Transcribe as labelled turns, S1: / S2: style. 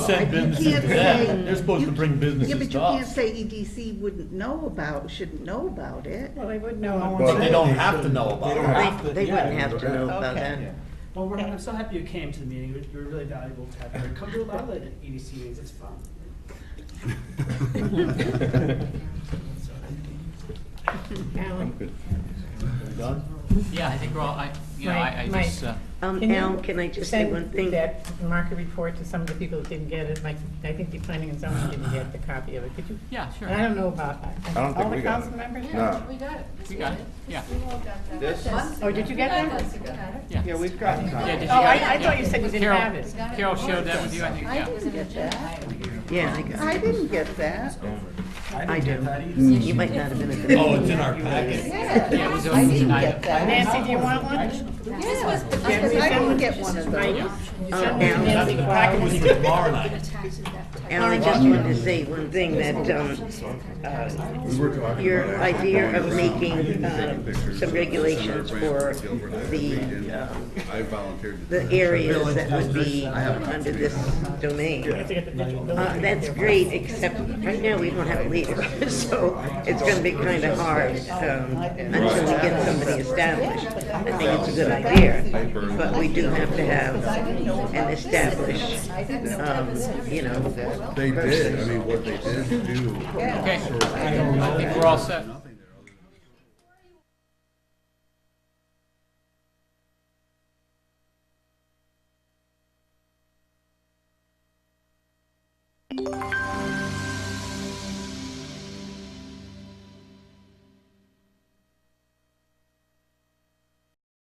S1: Send
S2: You
S1: businesses
S2: can't
S1: to that.
S2: say-
S1: They're supposed to
S2: you-
S1: bring
S2: Yeah,
S1: businesses
S2: but you
S1: to
S2: can't
S1: us.
S2: say EDC wouldn't know about, shouldn't know about it.
S3: Well, they would know.
S4: Well,
S5: But they don't
S4: they
S5: have to know about
S4: don't
S5: it.
S4: have to-
S6: They
S4: yeah,
S6: wouldn't
S4: they
S6: have
S4: don't
S6: to know about
S3: Okay.
S6: that.
S4: Yeah.
S7: Well, we're, I'm so happy you came to the meeting. You were- You were really valuable to have here. Come to a lot of the EDC meetings. It's fun.
S3: Alan,
S8: Yeah, I think we're all, I, you know,
S3: Right,
S8: I, I
S3: right.
S8: just, uh,
S6: Um,
S3: Can you
S6: Al, can I just say one thing?
S3: Send that market report to some of the people that didn't get it, like, I think the planning and zoning didn't get the copy of it, could you?
S8: yeah,
S3: And I
S8: sure.
S3: don't know about,
S4: I don't
S3: all
S4: think
S3: the
S4: we got it.
S3: council members?
S4: No.
S9: We got it.
S8: We got it, yeah.
S4: This?
S3: Oh, did you get that?
S8: Yeah,
S3: we've got it.
S8: Yeah, did
S3: Oh,
S8: you
S3: I, I
S8: get it?
S3: thought you said you didn't
S8: Carol-
S3: have it.
S8: Carol shared that with you, I think,
S2: I
S8: yeah.
S2: didn't get that.
S6: Yeah, I got
S2: I
S6: it.
S2: didn't get that.
S6: I do.
S7: That easy.
S6: You might not have been at the
S1: Oh,
S6: meeting.
S1: it's in our packet.
S2: Yeah,
S8: it was
S2: I didn't
S8: overnight.
S2: get that.
S3: Nancy, do you want
S6: Uh,
S3: one?
S2: Yeah, because I didn't get one of those.
S6: Um,
S3: Yeah.
S6: Al,
S1: The packet was here tomorrow night.
S6: Al, I just wanted to say one thing that, um, uh,
S4: We were talking
S6: your
S4: about it.
S6: idea of making,
S4: Send
S6: uh,
S4: pictures.
S6: some regulations for the, uh,
S4: I volunteered.
S6: the areas that would be under this domain. Uh, that's great, except right now we don't have a leader, so it's gonna be kinda hard, um, until we get somebody established. I think it's a good idea, but we do have to have an established, um, you know,
S4: They did, I mean, what they did do.
S8: Okay, I think we're all set.